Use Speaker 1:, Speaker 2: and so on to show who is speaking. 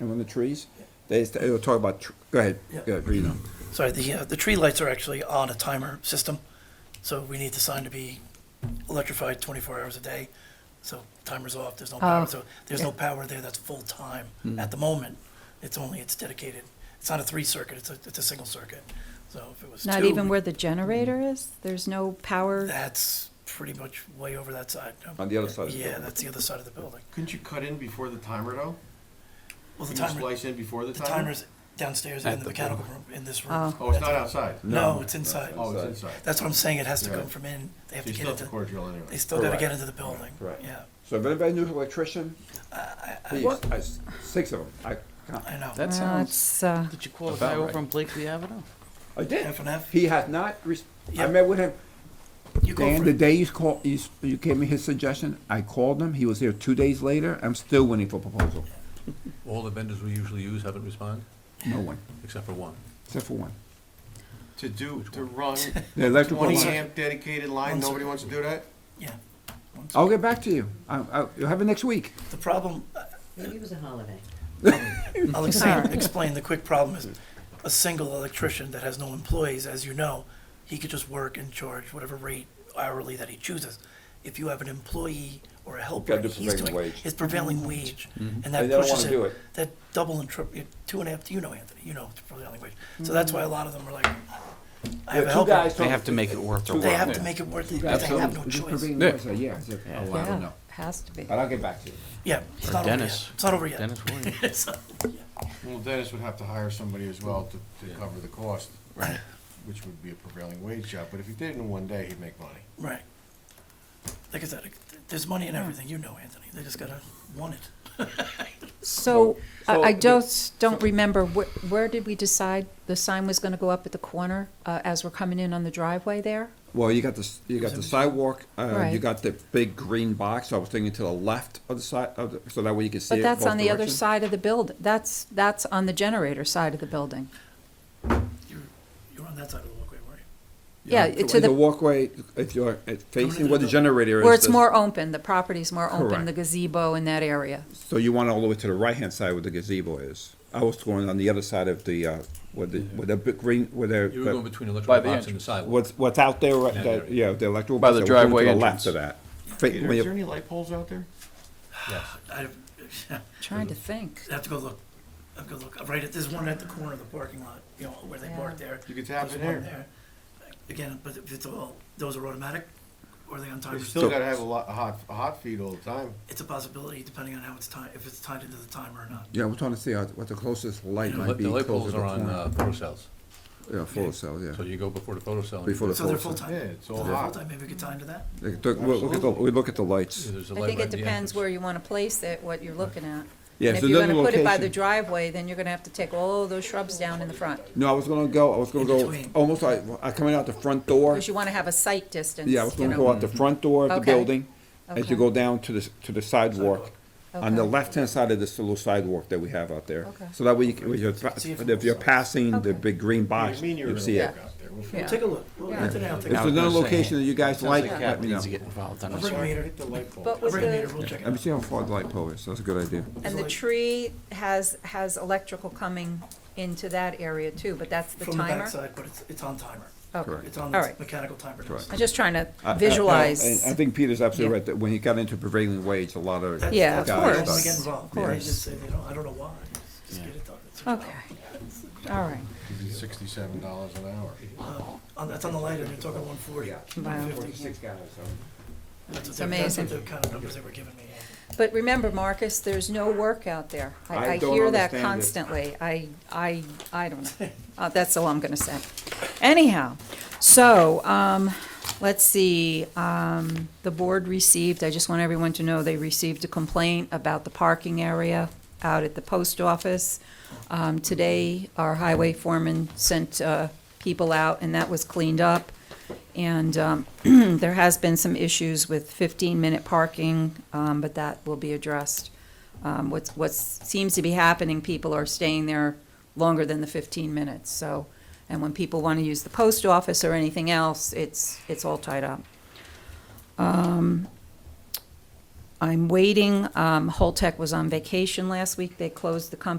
Speaker 1: and when the trees, they, they were talking about, tr- go ahead,
Speaker 2: Yeah.
Speaker 1: go ahead, read them.
Speaker 2: Sorry, the, uh, the tree lights are actually on a timer system, so we need the sign to be electrified twenty-four hours a day. So timer's off, there's no power,
Speaker 3: Oh.
Speaker 2: so there's no power there that's full-time
Speaker 1: Hmm.
Speaker 2: at the moment. It's only, it's dedicated, it's not a three-circuit, it's a, it's a single circuit. So if it was
Speaker 3: Not even
Speaker 2: two,
Speaker 3: where the generator is? There's no power?
Speaker 2: that's pretty much way over that side.
Speaker 1: On the other side of the
Speaker 2: Yeah,
Speaker 1: building.
Speaker 2: that's the other side of the building.
Speaker 4: Couldn't you cut in before the timer though?
Speaker 2: Well, the
Speaker 4: Can you
Speaker 2: timer,
Speaker 4: splice in before the
Speaker 2: the
Speaker 4: timer?
Speaker 2: timer's downstairs in the mechanical room, in this room.
Speaker 3: Oh.
Speaker 4: Oh, it's not outside?
Speaker 2: No, it's inside.
Speaker 4: Oh, it's inside.
Speaker 2: That's what I'm saying, it has to
Speaker 4: Right.
Speaker 2: come from in, they have
Speaker 4: So
Speaker 2: to
Speaker 4: you
Speaker 2: get
Speaker 4: still have to
Speaker 2: into,
Speaker 4: core drill
Speaker 2: they
Speaker 4: anyway.
Speaker 2: still gotta
Speaker 1: Correct.
Speaker 2: get into the building,
Speaker 1: Correct.
Speaker 2: yeah.
Speaker 1: So if anybody knows an electrician, please, I s- six of them, I,
Speaker 2: I know.
Speaker 5: That
Speaker 3: Uh,
Speaker 5: sounds.
Speaker 3: It's, uh,
Speaker 5: Did you call a
Speaker 1: about
Speaker 5: guy over
Speaker 1: right.
Speaker 5: on Blakely Avenue?
Speaker 1: I did.
Speaker 2: F and F?
Speaker 1: He has not, res- I
Speaker 2: Yep.
Speaker 1: met with him,
Speaker 2: You go
Speaker 1: Dan,
Speaker 2: for
Speaker 1: the
Speaker 2: it.
Speaker 1: day you called, you, s- you gave me his suggestion, I called him, he was here two days later, I'm still waiting for proposal,
Speaker 6: All the vendors we usually use haven't responded,
Speaker 1: no one,
Speaker 6: except for one.
Speaker 1: except for one.
Speaker 4: To do, to run
Speaker 1: The electrical
Speaker 4: twenty
Speaker 1: line,
Speaker 4: amp dedicated line,
Speaker 2: One sec.
Speaker 4: nobody wants to do that?
Speaker 2: Yeah. One
Speaker 1: I'll
Speaker 2: sec.
Speaker 1: get back to you, I, I, you'll have it next week.
Speaker 2: The problem, uh,
Speaker 7: Maybe it was a holiday.
Speaker 2: I'll explain, explain, the quick problem is a single electrician that has no employees, as you know, he could just work and charge whatever rate hourly that he chooses. If you have an employee or a helper,
Speaker 1: Gotta do
Speaker 2: and he's
Speaker 1: prevailing
Speaker 2: doing,
Speaker 1: wage. Mm-hmm.
Speaker 2: it's prevailing
Speaker 7: Mm-hmm.
Speaker 2: wage, and
Speaker 1: They
Speaker 2: that
Speaker 1: don't
Speaker 2: pushes
Speaker 1: wanna do
Speaker 2: it,
Speaker 1: it.
Speaker 2: that double and triple, two and a half, you know, Anthony, you know, it's prevailing wage. So that's
Speaker 7: Mm-hmm.
Speaker 2: why a lot of them are like, I have a helper,
Speaker 5: They have to make it worth their
Speaker 2: they
Speaker 5: while.
Speaker 2: have to make it worth it, but they have no choice.
Speaker 1: Yeah, I said, oh, I don't
Speaker 3: yeah,
Speaker 1: know,
Speaker 3: has to be.
Speaker 1: but I'll get back to you.
Speaker 2: Yeah, it's
Speaker 5: Or
Speaker 2: not over yet,
Speaker 5: Dennis.
Speaker 2: it's not over yet.
Speaker 5: Dennis Williams.
Speaker 2: It's not-
Speaker 4: Well, Dennis would have to hire somebody as well to, to cover the cost. Which would be a prevailing wage job, but if he did it in one day, he'd make money.
Speaker 2: Right. Like I said, it- there's money in everything, you know, Anthony. They just gotta want it.
Speaker 3: So I
Speaker 1: so
Speaker 3: I
Speaker 1: the-
Speaker 3: just don't remember, wh- where did we decide the sign was going to go up at the corner uh, as we're coming in on the driveway there?
Speaker 1: Well, you got the, s- you got the sidewalk, uh, you
Speaker 3: Right.
Speaker 1: got the big green box, I was thinking to the left of the side, of the, so that way you can see it
Speaker 3: But that's
Speaker 1: both
Speaker 3: on the other
Speaker 1: directions.
Speaker 3: side of the build, that's, that's on the generator side of the building.
Speaker 2: You're, you're on that side of the walkway, weren't
Speaker 3: Yeah,
Speaker 1: So
Speaker 3: to
Speaker 1: The
Speaker 3: the,
Speaker 1: walkway, if you're uh, facing where the
Speaker 2: the-
Speaker 1: generator is.
Speaker 3: where it's
Speaker 1: there's-
Speaker 3: more open, the property's more open,
Speaker 1: Correct.
Speaker 3: the gazebo in that area.
Speaker 1: So you want all the way to the right-hand side where the gazebo is. I was going on the other side of the, uh, where the, where the big green, where
Speaker 6: You were going
Speaker 1: the,
Speaker 6: between
Speaker 5: By the
Speaker 6: electrical box and the
Speaker 5: entrance.
Speaker 6: sidewalk.
Speaker 1: what's, what's out there, right
Speaker 6: Yeah.
Speaker 1: there, yeah, the electrical.
Speaker 5: By the
Speaker 1: so we're going
Speaker 5: driveway
Speaker 1: To the left
Speaker 5: entrance.
Speaker 1: of that. Fa-
Speaker 4: Peter,
Speaker 1: when
Speaker 4: is
Speaker 1: you-
Speaker 4: there any light poles out there?
Speaker 6: Yes.
Speaker 2: I? I'd
Speaker 3: Trying to think.
Speaker 2: I'd have to go look. I've got to look. Right at, there's one at the corner of the parking lot, you know, where they park there.
Speaker 4: You could tap
Speaker 2: There's
Speaker 4: in
Speaker 2: one
Speaker 4: there.
Speaker 2: Again, but if it's all, those are automatic or are they on
Speaker 4: You
Speaker 2: timers?
Speaker 4: still gotta have a lot, a hot, a hot feed all the time.
Speaker 2: It's a possibility depending on how it's tied, if it's tied into the timer or not.
Speaker 1: Yeah, we're trying to see how- what the closest light
Speaker 6: The
Speaker 1: might be.
Speaker 6: light
Speaker 1: closer
Speaker 6: poles
Speaker 1: to
Speaker 6: are
Speaker 1: the
Speaker 6: on
Speaker 1: corner.
Speaker 6: uh, photo cells,
Speaker 1: Yeah, full cell, yeah.
Speaker 6: so you go before the photo cell. and you
Speaker 1: Before the
Speaker 2: So they're
Speaker 1: full cell.
Speaker 2: full-time.
Speaker 4: Yeah, it's all
Speaker 2: They're
Speaker 4: hot.
Speaker 2: full-time, maybe we could tie into that.
Speaker 1: Like, the- we'll look at the- We look at the lights.
Speaker 6: do- there's a
Speaker 3: I
Speaker 6: light
Speaker 3: think
Speaker 6: right
Speaker 3: it
Speaker 6: at the
Speaker 3: depends
Speaker 6: entrance.
Speaker 3: where you want to place it, what you're looking at.
Speaker 1: Yeah,
Speaker 3: And
Speaker 1: so
Speaker 3: if you're
Speaker 1: another
Speaker 3: going to put it by the
Speaker 1: location-
Speaker 3: driveway, then you're going to have to take all those shrubs down in the front.
Speaker 1: No, I was gonna go, I was gonna
Speaker 2: In
Speaker 1: go,
Speaker 2: between.
Speaker 1: almost like, uh, coming out the front door.
Speaker 3: Because you want to have a sight distance,
Speaker 1: Yeah, I was
Speaker 3: you
Speaker 1: gonna go
Speaker 3: know.
Speaker 1: out the front door of the
Speaker 3: Okay.
Speaker 1: building, as you
Speaker 3: Okay.
Speaker 1: go down to the, s- to the sidewalk. On the
Speaker 3: Okay.
Speaker 1: left-hand side of this little sidewalk that we have out there.
Speaker 3: Okay.
Speaker 1: So that way you can, if you're, tra-
Speaker 2: See if-
Speaker 1: if you're passing the
Speaker 3: Okay.
Speaker 1: big green
Speaker 4: I
Speaker 1: box,
Speaker 4: mean, you're
Speaker 1: you
Speaker 4: gonna
Speaker 1: see it.
Speaker 4: look out there. We'll
Speaker 3: Yeah.
Speaker 2: Take a look. Well, Anthony, I'll
Speaker 1: If
Speaker 2: take a
Speaker 1: there's
Speaker 2: look.
Speaker 1: another
Speaker 5: I was saying,
Speaker 1: location that you guys
Speaker 5: Sounds
Speaker 1: like,
Speaker 5: like
Speaker 1: let
Speaker 5: Cap
Speaker 1: me know.
Speaker 5: needs to get involved on
Speaker 2: I'll
Speaker 5: this.
Speaker 2: bring a meter.
Speaker 4: Hit the light bulb.
Speaker 3: But with
Speaker 2: Bring a meter,
Speaker 3: the,
Speaker 2: we'll check it
Speaker 1: Let me
Speaker 2: out.
Speaker 1: see how far the light pole is, that's a good idea.
Speaker 3: and the tree has, has electrical coming into that area too, but that's the
Speaker 2: From the
Speaker 3: timer?
Speaker 2: backside, but it's, it's on timer.
Speaker 3: Okay.
Speaker 1: Correct.
Speaker 2: It's on
Speaker 3: All
Speaker 2: this
Speaker 3: right.
Speaker 2: mechanical timer. now.
Speaker 1: Correct.
Speaker 3: I'm just trying to
Speaker 1: I- I- I-
Speaker 3: visualize.
Speaker 1: I think Peter's absolutely
Speaker 3: Yeah.
Speaker 1: right, that when he got into prevailing wage, a lot of.
Speaker 2: That's-
Speaker 3: Yeah,
Speaker 2: that's
Speaker 3: of
Speaker 2: why They don't
Speaker 3: course.
Speaker 2: wanna get involved.
Speaker 3: Of
Speaker 2: They
Speaker 3: course.
Speaker 2: just say they don't, I don't know why. Just get it done. It's your
Speaker 3: Okay, all right.
Speaker 4: Sixty-seven dollars an hour.
Speaker 2: job. Uh, On, that's on the light, and you're talking one forty.
Speaker 3: Wow.
Speaker 2: It's
Speaker 3: amazing.
Speaker 2: That's what the kind of numbers they were giving me.
Speaker 3: But remember, Marcus, there's no work out there.
Speaker 1: I
Speaker 3: I, I
Speaker 1: don't
Speaker 3: hear that
Speaker 1: understand it.
Speaker 3: constantly. I, I, I don't know. Uh, that's all I'm gonna say. Anyhow, so, um, let's see, um, the board received, I just want everyone to know, they received a complaint about the parking area out at the post office. Um, today, our highway foreman sent, uh, people out and that was cleaned up. And um, there has been some issues with 15-minute parking, um, but that will be addressed. Um, What's, what seems to be happening, people are staying there longer than the 15 minutes, so, and when people want to use the post office or anything else, it's, it's all tied up. Um, I'm waiting, um, Holtec was on vacation last week, they closed the company.